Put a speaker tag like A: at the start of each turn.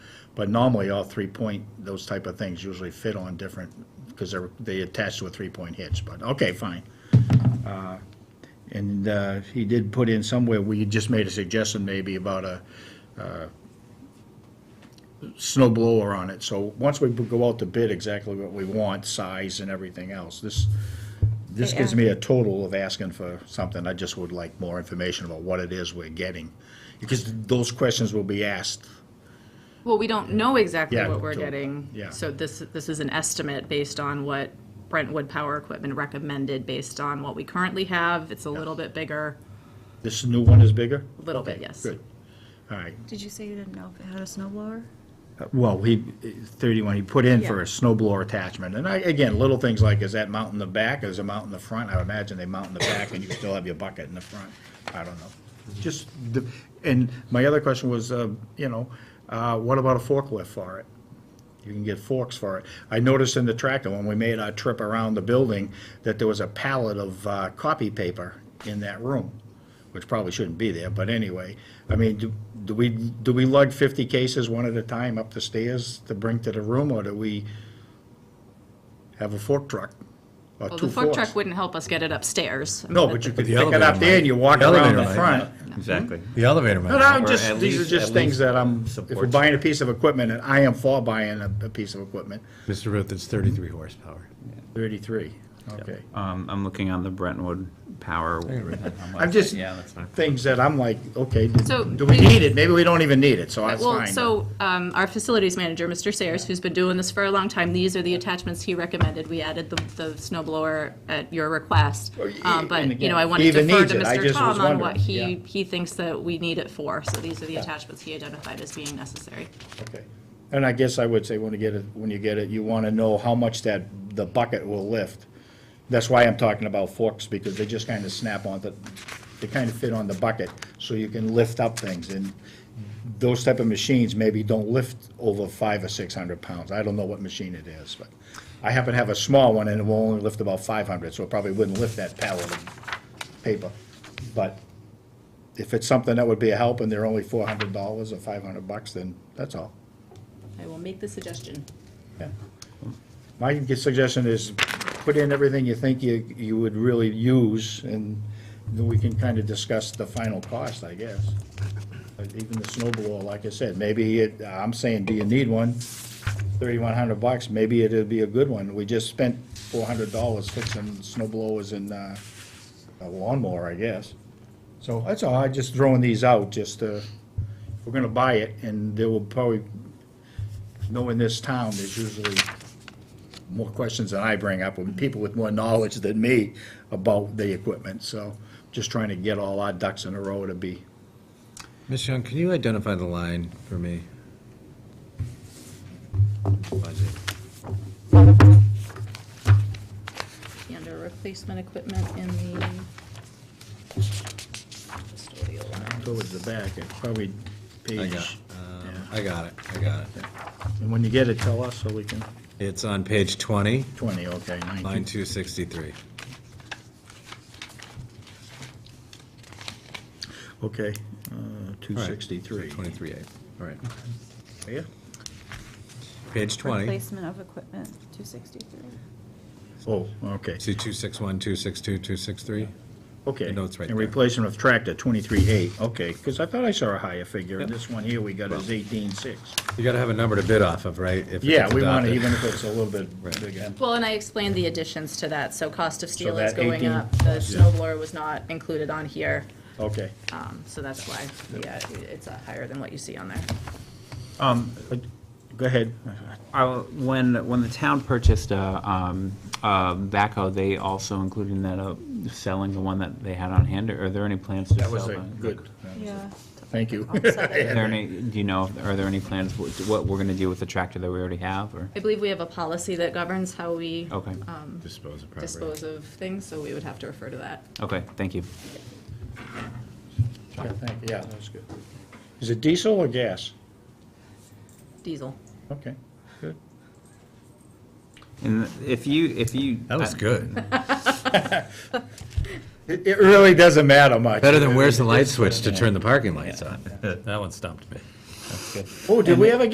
A: But normally, all three-point, those type of things usually fit on different, because they're, they attach to a three-point hitch, but, okay, fine. Uh, And uh, he did put in somewhere, we just made a suggestion maybe about a uh, snow blower on it. So once we go out to bid exactly what we want, size and everything else, this, this gives me a total of asking for something. I just would like more information about what it is we're getting. Because those questions will be asked
B: Well, we don't know exactly
A: Yeah,
B: what we're
A: so-
B: getting.
A: yeah.
B: So this, this is an estimate based on what Brentwood Power Equipment recommended, based on what we currently have. It's a little bit bigger,
A: This new one is bigger?
B: a little bit, yes.
A: Good. All right.
C: Did you say you didn't know if it had a snow blower?
A: Uh, Well, he, 31, he put in for a snow blower attachment. And I, again, little things like, is that mount in the back, is it mount in the front? I would imagine they mount in the back and you still have your bucket in the front. I don't know. Just, the- and my other question was, uh, you know, uh, what about a forklift for it? You can get forks for it. I noticed in the tractor, when we made our trip around the building, that there was a pallet of uh, copy paper in that room, which probably shouldn't be there, but anyway. I mean, do- do we, do we lug 50 cases one at a time up the stairs to bring to the room, or do we have a fork truck? Or
B: Well,
A: two
B: the fork
A: forks?
B: truck wouldn't help us get it upstairs.
A: No, but you could
D: the
A: pick it up
D: elevator
A: there and you walk
D: The
A: around
D: elevator
A: the
D: might.
A: front.
E: Exactly.
D: The elevator
A: No, no,
D: man.
A: I'm
E: Or
A: just,
E: at
A: these are
E: least-
A: just
E: at
A: things
E: least
A: that I'm, if we're
E: supports.
A: buying a piece of equipment, and I am for buying a, a piece of equipment,
D: Mr. Ruth, it's 33 horsepower.
A: 33, okay.
E: Um, I'm looking on the Brentwood Power.
A: I'm just,
E: Yeah, that's fine.
A: things that I'm like, okay,
B: So,
A: do we
B: maybe-
A: need it? Maybe we don't even need it, so that's
B: Well,
A: fine.
B: so um, our facilities manager, Mr. Sayers, who's been doing this for a long time, these are the attachments he recommended. We added the, the snow blower at your request.
A: Well, y-
B: Um, But,
A: and
B: you know,
A: again,
B: I want
A: he
B: to
A: even
B: defer
A: needs
B: to
A: it. I
B: Mr.
A: just was
B: Tom on what
A: wondering,
B: he,
A: yeah.
B: he thinks that we need it for. So these are the attachments he identified as being necessary.
A: Okay. And I guess I would say when you get it, when you get it, you want to know how much that, the bucket will lift. That's why I'm talking about forks, because they just kind of snap on the, they kind of fit on the bucket, so you can lift up things. And those type of machines maybe don't lift over five or six hundred pounds. I don't know what machine it is, but I happen to have a small one, and it will only lift about five hundred, so it probably wouldn't lift that pallet of paper. But if it's something that would be a help, and they're only four hundred dollars or five hundred bucks, then that's all.
B: I will make the suggestion.
A: Yeah. My suggestion is put in everything you think you, you would really use, and then we can kind of discuss the final cost, I guess. But Even the snow blower, like I said, maybe it, I'm saying, do you need one? Thirty-one hundred bucks, maybe it'd be a good one. We just spent four hundred dollars fixing snow blowers and, uh, a lawnmower, I guess. So that's all, I'm just throwing these out, just, uh, we're gonna buy it, and there will probably knowing this town, there's usually more questions than I bring up, and people with more knowledge than me about the equipment, so just trying to get all our ducks in a row to be,
D: Ms. Young, can you identify the line for me? Budget.
B: Under replacement equipment in the custodial line.
A: towards the back, it's probably
D: I got,
A: page.
D: um,
A: yeah.
D: I got it, I got it.
A: And when you get it, tell us, so we can,
D: It's on page 20,
A: twenty, okay,
D: line
A: nineteen.
D: 263.
A: Okay, uh, two sixty-three.
D: 23 eight. all right.
A: Yeah,
D: Page 20,
C: Replacement of equipment, 263.
A: oh, okay,
D: see 261, 262, 263?
A: okay.
D: The note's right
A: And
D: there.
A: replacement of tractor, twenty-three eight, okay, because I thought I saw a higher figure, and this one here we got is eighteen-six.
D: You gotta have a number to bid off of, right? if
A: Yeah,
D: it's
A: we want to,
D: adopted.
A: even if it's a little bit
D: Right.
A: bigger.
B: Well, and I explained the additions to that, so cost of steel is
A: that
B: going
A: 18
B: up, the snow blower was not included on here,
A: Okay.
B: um, so that's why, yeah, it's uh, higher than what you see on there.
A: Go ahead.
E: Uh, When, when the town purchased a um, a backhoe, they also included in that uh, selling the one that they had on hand, or are there any plans to
A: That
E: sell?
A: was a
E: the-
A: good,
C: Yeah.
A: thank you.
E: Are there any, do you know, are there any plans, what what we're going to do with the tractor that we already have, or?
B: I believe we have a policy that governs how we um,
E: Okay,
D: Dispose of property.
B: dispose of things, so we would have to refer to that.
E: okay, thank you.
A: Yeah, thank- yeah, that was good. Is it diesel or gas?
B: Diesel.
A: Okay, good.
E: And if you, if you.
D: That was good.
A: It it really doesn't matter much.
D: Better than where's the light switch to turn the parking lights on? That one stumped me.
A: Oh, did we ever